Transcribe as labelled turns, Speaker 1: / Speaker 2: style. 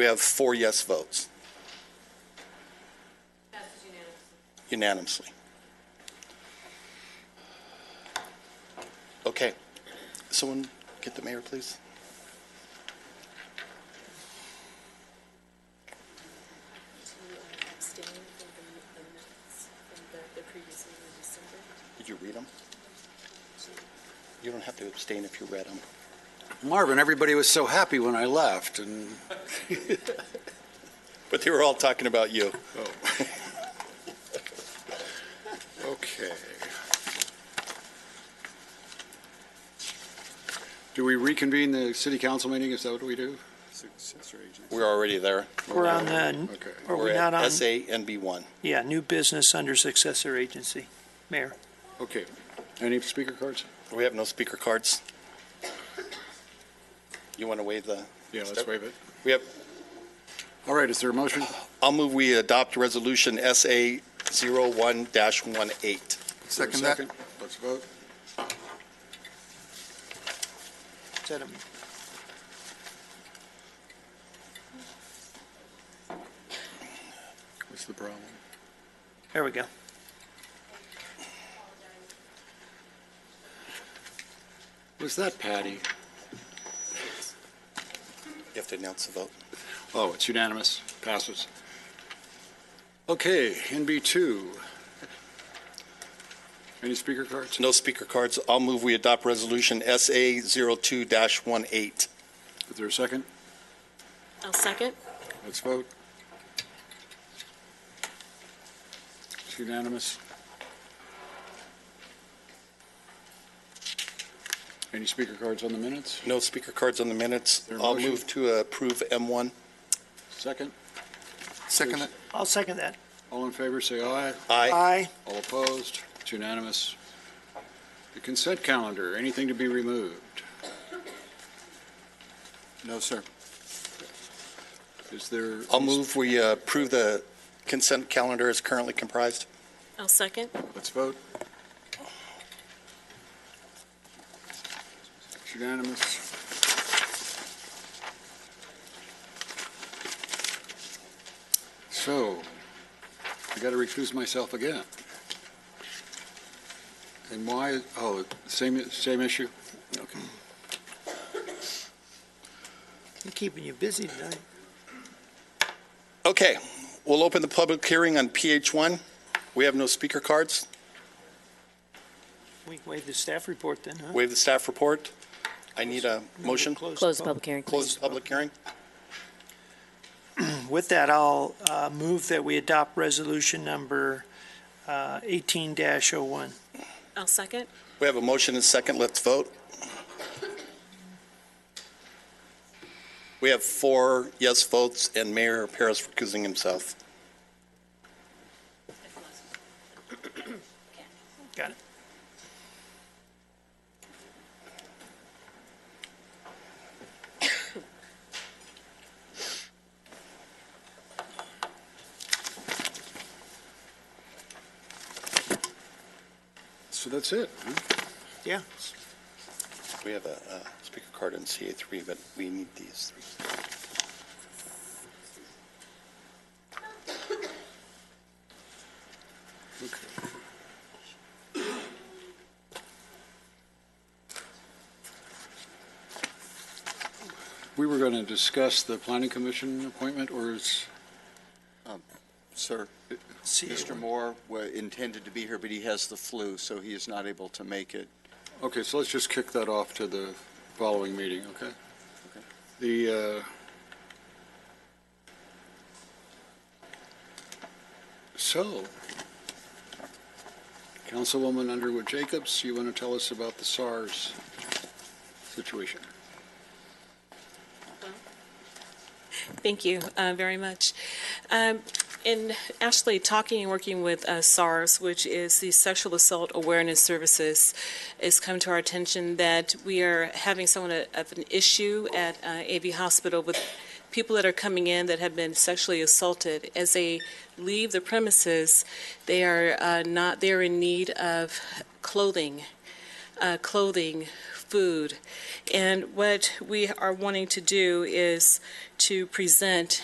Speaker 1: We have four yes votes
Speaker 2: Passes unanimously.
Speaker 1: unanimously. Okay. Someone get the mayor, please.
Speaker 3: to um, abstain from the minutes from the, the previous meeting in December.
Speaker 1: Did you read them? You don't have to abstain if you read them.
Speaker 4: Marvin, everybody was so happy when I left, and
Speaker 1: But they were all talking about you.
Speaker 4: Okay. Do we reconvene the city council meeting? Is that what we do? Successor agency.
Speaker 1: We're already there.
Speaker 5: We're on the,
Speaker 4: Okay.
Speaker 5: are
Speaker 1: We're
Speaker 5: we not on?
Speaker 1: at SANB1.
Speaker 5: Yeah, new business under successor agency. Mayor,
Speaker 4: Okay. Any speaker cards?
Speaker 1: We have no speaker cards. You want to waive the,
Speaker 4: Yeah,
Speaker 1: let's
Speaker 4: waive it.
Speaker 1: we have,
Speaker 4: All right, is there a motion?
Speaker 1: I'll move we adopt Resolution SA01-18.
Speaker 4: Second that. Let's vote.
Speaker 5: is that a,
Speaker 4: What's the problem?
Speaker 5: there we go.
Speaker 4: Was that Patty?
Speaker 1: You have to announce the vote.
Speaker 4: Oh, it's unanimous. Passes. Okay, NB2. Any speaker cards?
Speaker 1: No speaker cards. I'll move we adopt Resolution SA02-18.
Speaker 4: Is there a second?
Speaker 3: I'll second.
Speaker 4: Let's vote. It's unanimous. Any speaker cards on the minutes?
Speaker 1: No speaker cards on the minutes.
Speaker 4: There a
Speaker 1: I'll
Speaker 4: motion?
Speaker 1: move to approve M1.
Speaker 4: Second?
Speaker 1: Second.
Speaker 5: I'll second that.
Speaker 4: All in favor, say aye.
Speaker 1: Aye.
Speaker 5: Aye.
Speaker 4: All opposed? It's unanimous. The consent calendar, anything to be removed? No, sir. Is there?
Speaker 1: I'll move we uh, approve the consent calendar as currently comprised.
Speaker 3: I'll second.
Speaker 4: Let's vote. It's unanimous. So, I got to recuse myself again. And why, oh, same, same issue? Okay.
Speaker 5: I'm keeping you busy tonight.
Speaker 1: Okay, we'll open the public hearing on PH1. We have no speaker cards.
Speaker 5: We waive the staff report then, huh?
Speaker 1: Waive the staff report. I need a motion.
Speaker 3: Close the public hearing,
Speaker 1: Close
Speaker 3: please.
Speaker 1: the public hearing.
Speaker 5: With that, I'll uh, move that we adopt resolution number uh, 18-01.
Speaker 3: I'll second.
Speaker 1: We have a motion and second. Let's vote. We have four yes votes and Mayor Paris recusing himself.
Speaker 5: Got it.
Speaker 4: So that's it, huh?
Speaker 5: Yeah.
Speaker 1: We have a uh, speaker card in CA3, but we need these three.
Speaker 4: We were going to discuss the planning commission appointment, or is,
Speaker 6: Sir,
Speaker 5: See you.
Speaker 6: Mr. Moore wa- intended to be here, but he has the flu, so he is not able to make it.
Speaker 4: okay, so let's just kick that off to the following meeting, okay?
Speaker 6: Okay.
Speaker 4: The, uh, so, Councilwoman Underwood Jacobs, you want to tell us about the SARS situation?
Speaker 3: Thank you uh, very much. Um, And actually, talking and working with uh, SARS, which is the Sexual Assault Awareness Services, it's come to our attention that we are having somewhat of an issue at uh, AV Hospital with people that are coming in that have been sexually assaulted. As they leave the premises, they are uh, not, they're in need of clothing, uh, clothing food. And what we are wanting to do is to present